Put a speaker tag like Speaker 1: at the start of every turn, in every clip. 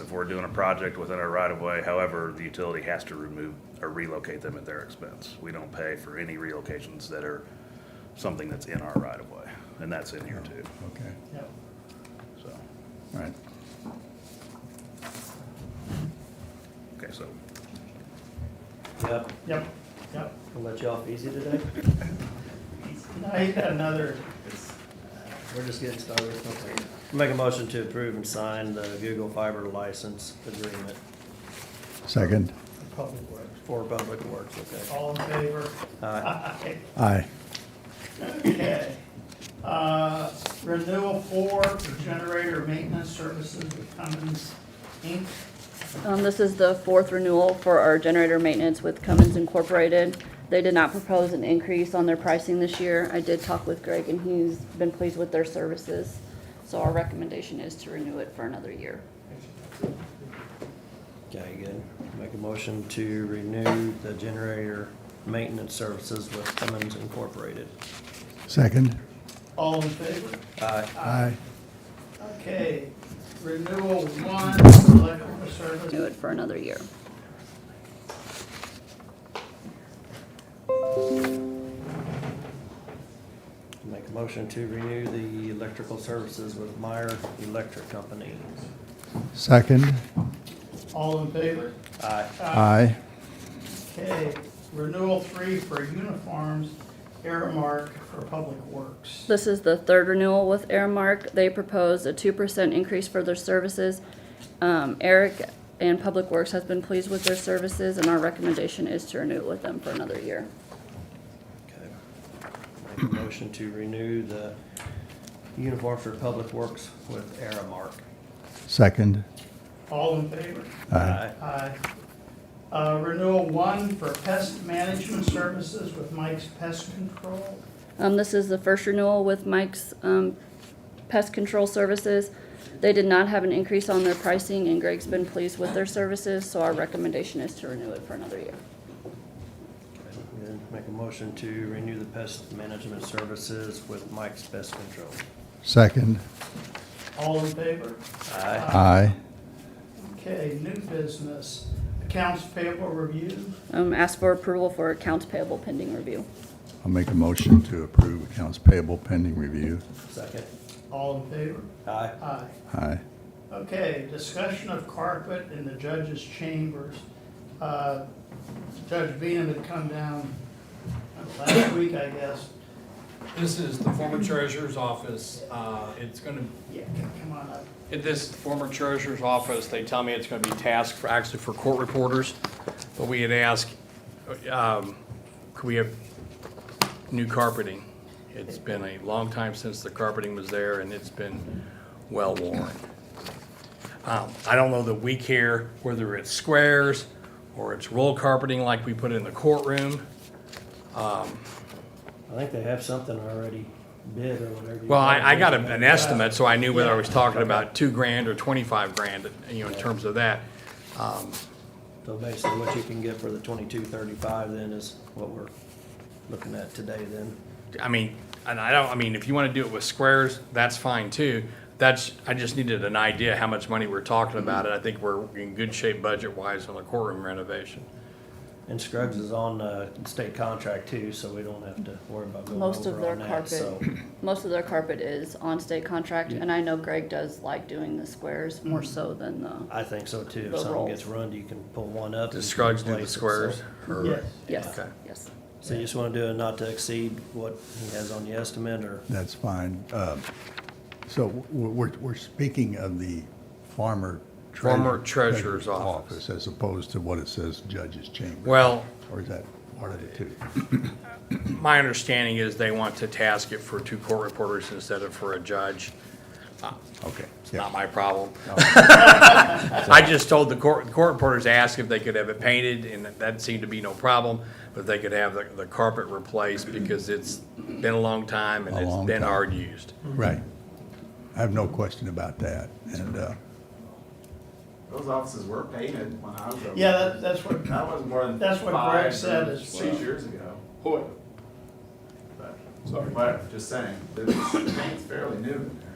Speaker 1: if we're doing a project within our right of way. However, the utility has to remove or relocate them at their expense. We don't pay for any relocations that are something that's in our right of way, and that's in here too,
Speaker 2: Okay,
Speaker 3: Yep.
Speaker 1: so.
Speaker 2: all right.
Speaker 1: Okay, so
Speaker 4: Yep,
Speaker 3: Yep, yep.
Speaker 4: I'll let you off easy today.
Speaker 3: Now you got another,
Speaker 4: We're just getting started. Make a motion to approve and sign the Google Fiber license agreement
Speaker 2: Second,
Speaker 3: public works.
Speaker 4: for public works, okay?
Speaker 3: All in favor?
Speaker 4: Aye.
Speaker 3: Aye.
Speaker 2: aye.
Speaker 3: Okay. Uh, Renewal four for generator maintenance services with Cummins Inc.
Speaker 5: Um, this is the fourth renewal for our generator maintenance with Cummins Incorporated. They did not propose an increase on their pricing this year. I did talk with Greg and he's been pleased with their services. So our recommendation is to renew it for another year.
Speaker 4: Okay, good. Make a motion to renew the generator maintenance services with Cummins Incorporated.
Speaker 2: Second,
Speaker 3: All in favor?
Speaker 4: Aye.
Speaker 2: aye.
Speaker 3: Okay. Renewal one for electrical
Speaker 5: Renew
Speaker 3: service.
Speaker 5: it for another year.
Speaker 4: Make a motion to renew the electrical services with Meyer Electric Company.
Speaker 2: Second,
Speaker 3: All in favor?
Speaker 4: Aye.
Speaker 2: aye.
Speaker 3: Okay. Renewal three for uniforms, Aramark for Public Works.
Speaker 5: This is the third renewal with Airmark. They proposed a two percent increase for their services. Um, Eric and Public Works has been pleased with their services and our recommendation is to renew it with them for another year.
Speaker 4: Okay. Make a motion to renew the uniform for public works with Aramark.
Speaker 2: Second,
Speaker 3: All in favor?
Speaker 2: aye.
Speaker 3: Aye. Uh, Renewal one for pest management services with Mike's Pest Control.
Speaker 5: Um, this is the first renewal with Mike's, um, pest control services. They did not have an increase on their pricing and Greg's been pleased with their services, so our recommendation is to renew it for another year.
Speaker 4: Okay, Then make a motion to renew the pest management services with Mike's Pest Control.
Speaker 2: Second,
Speaker 3: All in favor?
Speaker 4: Aye.
Speaker 2: aye.
Speaker 3: Okay, new business, accounts payable review.
Speaker 5: Um, ask for approval for accounts payable pending review.
Speaker 2: I'll make a motion to approve accounts payable pending review.
Speaker 4: Second.
Speaker 3: All in favor?
Speaker 4: Aye.
Speaker 3: Aye.
Speaker 2: Aye.
Speaker 3: Okay, discussion of carpet in the judge's chambers. Uh, Judge Beam had come down last week, I guess.
Speaker 6: This is the former treasurer's office. Uh, It's going to,
Speaker 3: Yeah, come on up.
Speaker 6: in this former treasurer's office, they tell me it's going to be tasked for, actually for court reporters. But we had asked, um, could we have new carpeting? It's been a long time since the carpeting was there and it's been well worn. Um, I don't know that we care whether it's squares or it's roll carpeting like we put in the courtroom.
Speaker 4: I think they have something already bid or whatever. you
Speaker 6: Well,
Speaker 4: call
Speaker 6: I, I
Speaker 4: it.
Speaker 6: got a- an estimate, so I knew whether I was talking about two grand or twenty-five grand, you know, in terms of that.
Speaker 4: So basically what you can get for the twenty-two thirty-five then is what we're looking at today then.
Speaker 6: I mean, and I don't, I mean, if you wanna do it with squares, that's fine too. That's, I just needed an idea how much money we're talking about, and I think we're in good shape budget-wise on the courtroom renovation.
Speaker 4: And Scruggs is on uh state contract too, so we don't have to worry about going
Speaker 5: Most of
Speaker 4: over
Speaker 5: their
Speaker 4: on that,
Speaker 5: carpet,
Speaker 4: so.
Speaker 5: most of their carpet is on state contract, and I know Greg does like doing the squares more
Speaker 4: Mm-hmm.
Speaker 5: so than the,
Speaker 4: I think so too.
Speaker 5: The
Speaker 4: If something
Speaker 5: roll.
Speaker 4: gets ruined, you can pull one up.
Speaker 6: Does
Speaker 4: and
Speaker 6: Scruggs do the
Speaker 4: replace it, so-
Speaker 6: squares? or-
Speaker 3: Yes.
Speaker 5: yes,
Speaker 6: Okay.
Speaker 5: yes.
Speaker 4: So you just wanna do it not to exceed what he has on the estimate or?
Speaker 2: That's fine. Um, So we're, we're- we're speaking of the farmer. treasurer-
Speaker 6: Former treasurer's office.
Speaker 2: As opposed to what it says judge's chamber.
Speaker 6: Well,
Speaker 2: Or is that part of it too?
Speaker 6: my understanding is they want to task it for two court reporters instead of for a judge.
Speaker 2: Okay.
Speaker 6: It's
Speaker 2: yeah.
Speaker 6: not my problem. I just told the court, the court reporters asked if they could have it painted, and that seemed to be no problem, but they could have the, the carpet replaced because it's been a long time and
Speaker 2: A long
Speaker 6: it's been
Speaker 2: time.
Speaker 6: hard used.
Speaker 2: Right. I have no question about that. And, uh,
Speaker 7: Those offices were painted when I was over.
Speaker 3: Yeah, that- that's what,
Speaker 7: That was more than.
Speaker 3: That's what
Speaker 7: five
Speaker 3: Greg said
Speaker 7: or
Speaker 3: as well.
Speaker 7: Six years ago. Boy. Sorry. But just saying, the paint's fairly new in there.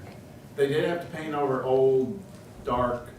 Speaker 7: They did have to paint over old, dark